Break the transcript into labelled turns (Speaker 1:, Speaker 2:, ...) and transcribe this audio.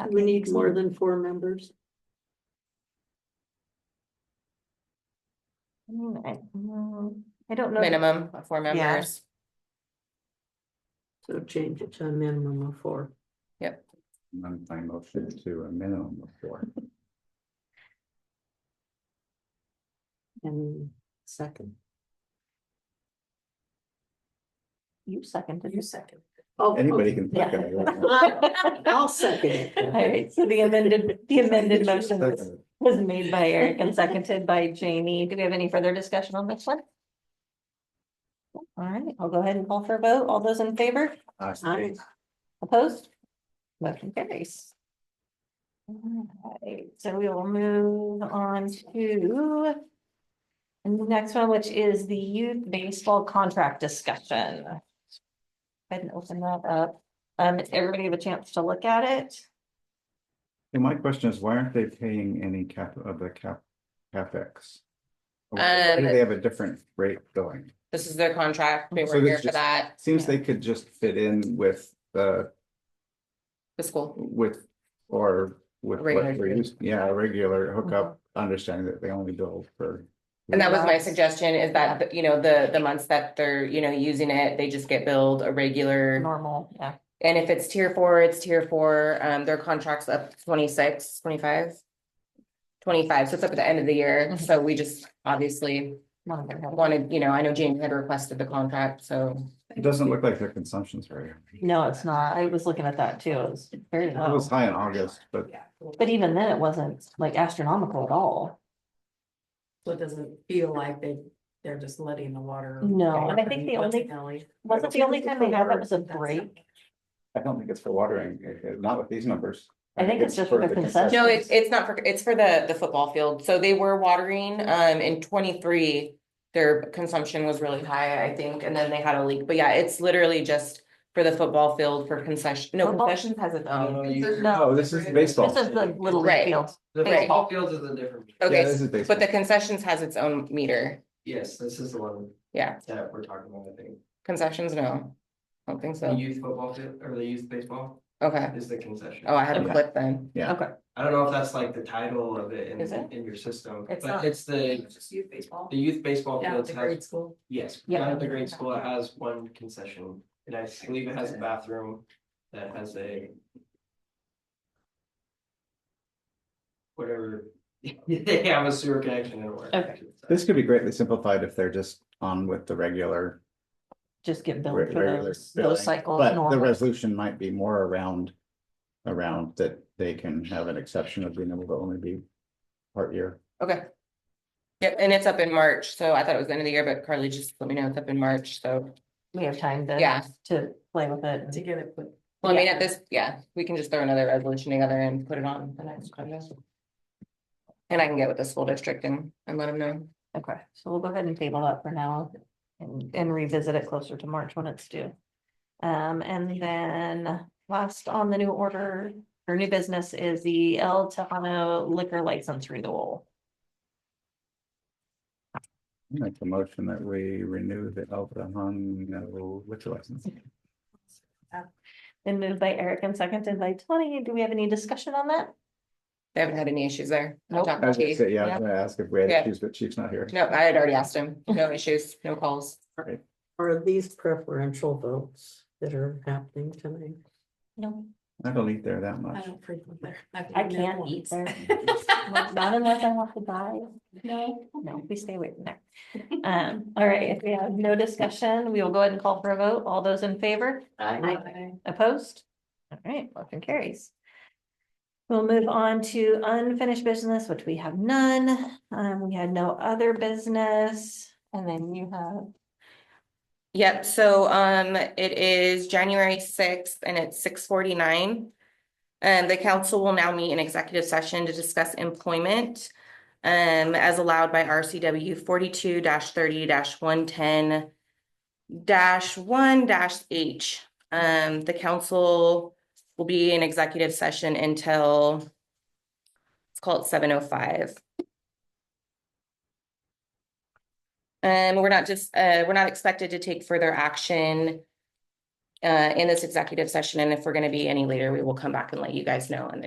Speaker 1: Do we need more than four members?
Speaker 2: Mm, I mm, I don't know. that-
Speaker 3: minimum of four members.
Speaker 1: So change it to a minimum of four.
Speaker 4: I'm my motion to a minimum of four.
Speaker 1: And second.
Speaker 2: You seconded. You second.
Speaker 1: Oh,
Speaker 4: Anybody can
Speaker 2: Yeah.
Speaker 4: second it.
Speaker 1: I'll second it.
Speaker 2: All right, so the amended, the amended motion was,
Speaker 4: Second.
Speaker 2: was made by Eric and seconded by Jamie. Do we have any further discussion on this one? All right, I'll go ahead and call for a vote. All those in favor?
Speaker 4: I
Speaker 1: Aye.
Speaker 4: think
Speaker 2: Opposed? Motion carries. Alright, so we will move on to. And the next one, which is the youth baseball contract discussion. Go ahead and open that up. Um, everybody have a chance to look at it.
Speaker 4: And my question is, why aren't they paying any cap of the cap, capex? Why do
Speaker 3: Um,
Speaker 4: they have a different rate going?
Speaker 3: This is their contract. They
Speaker 4: So
Speaker 3: were
Speaker 4: this
Speaker 3: here for
Speaker 4: just-
Speaker 3: that,
Speaker 4: Seems they could just fit in with the,
Speaker 3: the school.
Speaker 4: with, or with. what
Speaker 3: Regular.
Speaker 4: we're used- Yeah, a regular hookup,
Speaker 2: Mm-hmm.
Speaker 4: understanding that they only bill for.
Speaker 3: And that was my
Speaker 2: Yes.
Speaker 3: suggestion is that, you know, the, the months that they're, you know, using it, they just get billed a regular.
Speaker 2: Normal, yeah.
Speaker 3: And if it's tier four, it's tier four, um, their contract's up 26, 25, 25, so it's up at the end of the year,
Speaker 4: Mm-hmm.
Speaker 2: Mhm.
Speaker 3: so we just obviously wanted, you know, I know Jamie had requested the contract, so.
Speaker 4: It doesn't look like their consumption's very. high.
Speaker 2: No, it's not. I was looking at that too. It was very
Speaker 4: It
Speaker 2: low.
Speaker 4: was high in August, but
Speaker 2: But even then, it wasn't like astronomical at all.
Speaker 5: So it doesn't feel like they, they're just letting the water.
Speaker 2: No, and I
Speaker 5: go
Speaker 2: think the
Speaker 5: what's
Speaker 2: only-
Speaker 5: it, Ellie?
Speaker 2: Wasn't the only time they had that was a
Speaker 5: That's it.
Speaker 2: break?
Speaker 4: I don't think it's for watering, eh, eh, not with these numbers.
Speaker 2: I think it's just for the concession.
Speaker 3: No, it's, it's not for, it's for the, the football field, so they were watering, um, in twenty-three. Their consumption was really high, I think, and then they had a leak, but yeah, it's literally just for the football field for concession, no,
Speaker 2: Football?
Speaker 3: concessions has its
Speaker 6: Oh,
Speaker 3: own.
Speaker 6: you-
Speaker 4: No, this is baseball.
Speaker 2: This is the little league
Speaker 3: Right.
Speaker 2: field.
Speaker 6: The
Speaker 3: Right.
Speaker 6: football field is a different.
Speaker 4: Yeah,
Speaker 3: Okay,
Speaker 4: this is
Speaker 3: but
Speaker 4: baseball.
Speaker 3: the concessions has its own meter,
Speaker 6: Yes, this is the one
Speaker 3: yeah,
Speaker 6: that we're talking about, I think.
Speaker 3: concessions, no, I don't think
Speaker 6: The
Speaker 3: so,
Speaker 6: youth football field or the youth baseball
Speaker 3: okay,
Speaker 6: is the concession.
Speaker 3: oh, I had a
Speaker 4: Okay.
Speaker 3: clip then.
Speaker 6: I don't know if that's like the title of it in,
Speaker 3: Is it?
Speaker 6: in your system,
Speaker 2: It's
Speaker 6: but
Speaker 2: not.
Speaker 6: it's the,
Speaker 5: It's just youth baseball.
Speaker 6: the youth baseball
Speaker 5: Down at
Speaker 6: field
Speaker 5: the grade
Speaker 6: has,
Speaker 5: school.
Speaker 6: yes,
Speaker 2: Yeah.
Speaker 6: down at the grade school, it has one concession. And I believe it has a bathroom that has a whatever, they have a sewer connection and a water.
Speaker 2: Okay.
Speaker 6: connection.
Speaker 4: This could be greatly simplified if they're just on with the regular.
Speaker 2: Just get billed
Speaker 4: re-
Speaker 2: for
Speaker 4: regular
Speaker 2: those,
Speaker 4: billing,
Speaker 2: those cycles.
Speaker 4: But the
Speaker 2: normal.
Speaker 4: resolution might be more around, around that they can have an exception of being able to only be part year.
Speaker 3: Okay. Yep, and it's up in March, so I thought it was the end of the year, but Carly just let me know it's up in March, so,
Speaker 2: We have time
Speaker 3: yeah.
Speaker 2: to, to play with it.
Speaker 5: To
Speaker 2: and-
Speaker 5: get it put
Speaker 3: Well, I mean,
Speaker 2: Yeah.
Speaker 3: at this, yeah, we can just throw another resolution together and put it on the next agenda. And I can get with the school district and, and let them know.
Speaker 2: Okay, so we'll go ahead and table that for now and, and revisit it closer to March when it's due. Um, and then last on the new order or new business is the El Tejano liquor license renewal.
Speaker 4: I Make the motion that we renew the El Tejano liquor license.
Speaker 2: Been moved by Eric and seconded by Tony. Do we have any discussion on that?
Speaker 3: They haven't had any issues there. I
Speaker 2: Nope.
Speaker 3: talked
Speaker 4: I
Speaker 3: to
Speaker 4: was gonna
Speaker 3: Keith.
Speaker 4: say, yeah, I was gonna ask if we had
Speaker 3: Yeah.
Speaker 4: issues, but Chief's not here.
Speaker 3: No, I had already asked him. No issues, no calls.
Speaker 1: Are these preferential votes that are happening tonight?
Speaker 2: No.
Speaker 4: I don't eat there that
Speaker 5: I
Speaker 4: much.
Speaker 5: don't frequent there.
Speaker 2: I can't eat there. Not unless I want to die. No. No, we stay away from there. Um, all right, if we have no discussion, we will go ahead and call for a vote. All those in favor? Opposed? All right, motion carries. We'll move on to unfinished business, which we have none. Um, we had no other business. And then you have
Speaker 3: Yep, so um it is January sixth and it's six forty-nine. And the council will now meet in executive session to discuss employment. Um as allowed by RCW forty-two thirty one-ten. one H. Um the council will be in executive session until. Let's call it seven oh five. Um, we're not just, uh, we're not expected to take further action. Uh, in this executive session, and if we're gonna be any later, we will come back and let you guys know, and then